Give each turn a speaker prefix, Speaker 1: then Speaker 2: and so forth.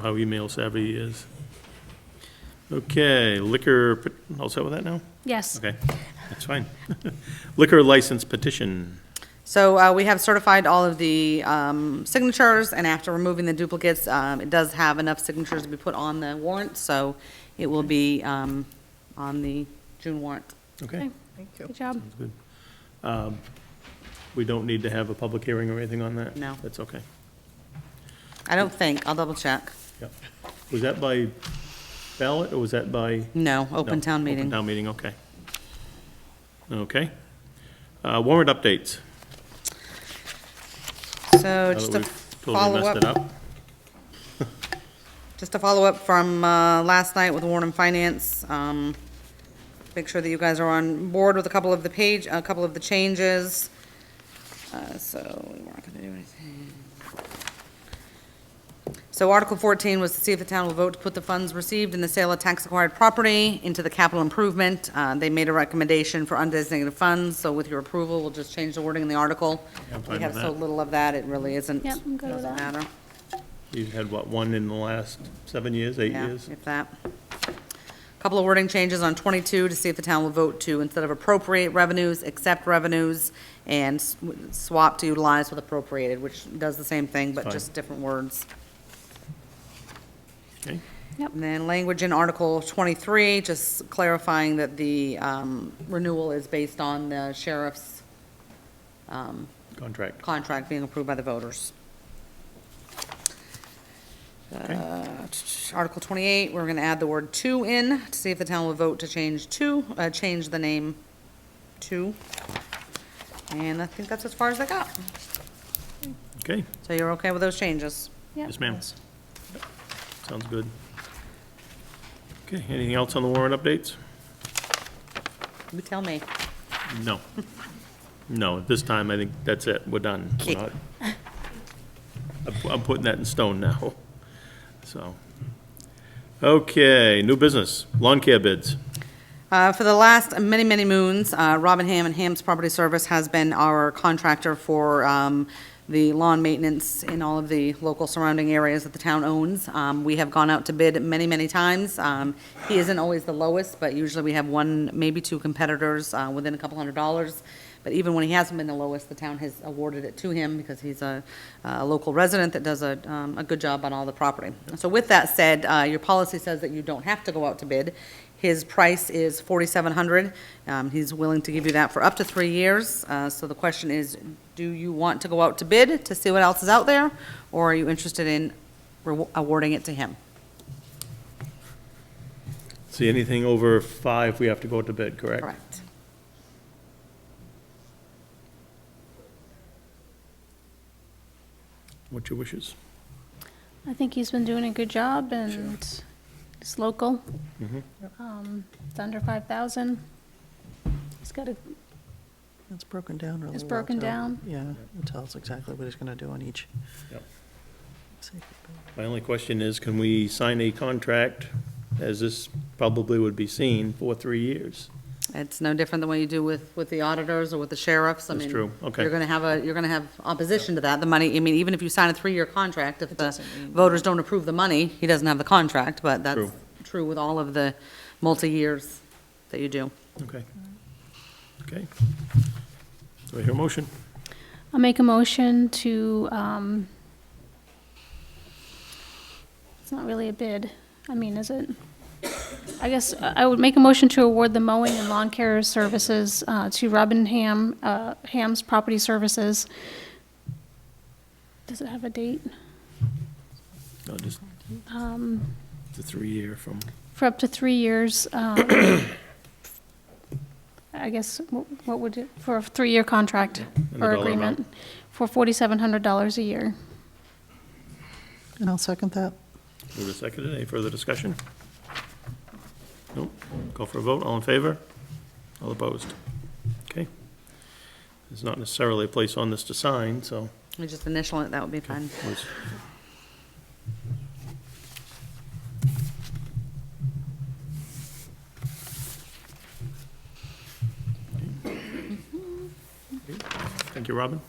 Speaker 1: how email savvy he is. Okay, liquor, pet- all set with that now?
Speaker 2: Yes.
Speaker 1: Okay, that's fine. Liquor license petition.
Speaker 3: So uh, we have certified all of the um, signatures, and after removing the duplicates, um, it does have enough signatures to be put on the warrant, so it will be um, on the June warrant.
Speaker 1: Okay,
Speaker 2: Okay. Good job.
Speaker 1: sounds good. Um, We don't need to have a public hearing or anything on that?
Speaker 3: No.
Speaker 1: That's okay.
Speaker 3: I don't think, I'll double check.
Speaker 1: Yep. Was that by ballot or was that by?
Speaker 3: No, open
Speaker 1: No,
Speaker 3: town
Speaker 1: Open
Speaker 3: meeting.
Speaker 1: town meeting, okay. Okay. Uh, Warrant updates.
Speaker 3: So
Speaker 1: Now that
Speaker 3: just to
Speaker 1: we've totally
Speaker 3: follow
Speaker 1: messed
Speaker 3: up.
Speaker 1: it up.
Speaker 3: Just to follow up from uh, last night with Warren and Finance, um, make sure that you guys are on board with a couple of the page, a couple of the changes. Uh, So we weren't going to do anything. So Article 14 was to see if the town will vote to put the funds received in the sale of tax-acquired property into the capital improvement. Uh, They made a recommendation for undesignated funds, so with your approval, we'll just change the wording in the article.
Speaker 1: I'm fine
Speaker 3: We
Speaker 1: with
Speaker 3: have so
Speaker 1: that.
Speaker 3: little of that, it really isn't,
Speaker 2: Yep, I'm
Speaker 3: doesn't
Speaker 2: good with that.
Speaker 3: matter.
Speaker 1: You've had, what, one in the last seven years, eight
Speaker 3: Yeah,
Speaker 1: years?
Speaker 3: if that. Couple of wording changes on 22 to see if the town will vote to, instead of appropriate revenues, accept revenues, and s- swap to utilize with appropriated, which does the same thing, but
Speaker 1: Fine.
Speaker 3: just different words.
Speaker 1: Okay.
Speaker 3: And then language in Article 23, just clarifying that the um, renewal is based on the sheriff's um,
Speaker 1: Contract.
Speaker 3: contract being approved by the voters.
Speaker 1: Okay.
Speaker 3: Uh, Article 28, we're going to add the word "to" in to see if the town will vote to change "to," uh, change the name "to." And I think that's as far as I got.
Speaker 1: Okay,
Speaker 3: So you're okay with those changes?
Speaker 2: Yep.
Speaker 1: yes, ma'am. Sounds good. Okay, anything else on the warrant updates?
Speaker 3: You tell me.
Speaker 1: No. No, at this time, I think that's it, we're done. We're
Speaker 3: Okay.
Speaker 1: not- I'm pu- I'm putting that in stone now, so. Okay, new business, lawn care bids.
Speaker 3: Uh, For the last many, many moons, uh, Robin Ham and Ham's Property Service has been our contractor for um, the lawn maintenance in all of the local surrounding areas that the town owns. Um, We have gone out to bid many, many times. Um, He isn't always the lowest, but usually we have one, maybe two competitors uh, within a couple hundred dollars. But even when he hasn't been the lowest, the town has awarded it to him because he's a, uh, a local resident that does a, um, a good job on all the property. So with that said, uh, your policy says that you don't have to go out to bid. His price is forty-seven hundred. Um, he's willing to give you that for up to three years. Uh, so the question is, do you want to go out to bid to see what else is out there? Or are you interested in rewa- awarding it to him?
Speaker 1: See, anything over five, we have to go to bid, correct?
Speaker 3: Correct.
Speaker 1: What's your wishes?
Speaker 2: I think he's been doing a good job and it's local.
Speaker 1: Mm-hmm.
Speaker 2: Um, It's under 5,000. He's got a,
Speaker 4: It's broken down really well.
Speaker 2: It's broken
Speaker 4: too.
Speaker 2: down.
Speaker 4: Yeah, it tells exactly what he's going to do on each.
Speaker 1: Yep.
Speaker 4: safety building.
Speaker 1: My only question is, can we sign a contract, as this probably would be seen, for three years?
Speaker 3: It's no different than what you do with, with the auditors or with the sheriffs. I
Speaker 1: That's
Speaker 3: mean,
Speaker 1: true. Okay.
Speaker 3: You're gonna have a, you're gonna have opposition to that. The money, I mean, even if you sign a three-year contract, if the voters don't approve the money, he doesn't have the contract, but that's
Speaker 1: True.
Speaker 3: true with all of the multi-years that you do.
Speaker 1: Okay. Okay. Do I hear a motion?
Speaker 2: I'll make a motion to, um, it's not really a bid. I mean, is it? I guess I would make a motion to award the mowing and lawn care services uh, to Robin Ham, uh, Ham's Property Services. Does it have a date?
Speaker 1: No, just
Speaker 2: Um,
Speaker 1: the three-year from,
Speaker 2: for up to three years. um, I guess, wh- what would it, for a three-year contract
Speaker 1: And the
Speaker 2: or
Speaker 1: dollar amount.
Speaker 2: agreement, for $4,700 a year.
Speaker 4: And I'll second that.
Speaker 1: move to second. Any further discussion? Nope. Go for a vote. All in favor? All opposed? Okay. There's not necessarily a place on this to sign, so
Speaker 3: You just initial it, that would be fine.
Speaker 1: let's- Thank you, Robin.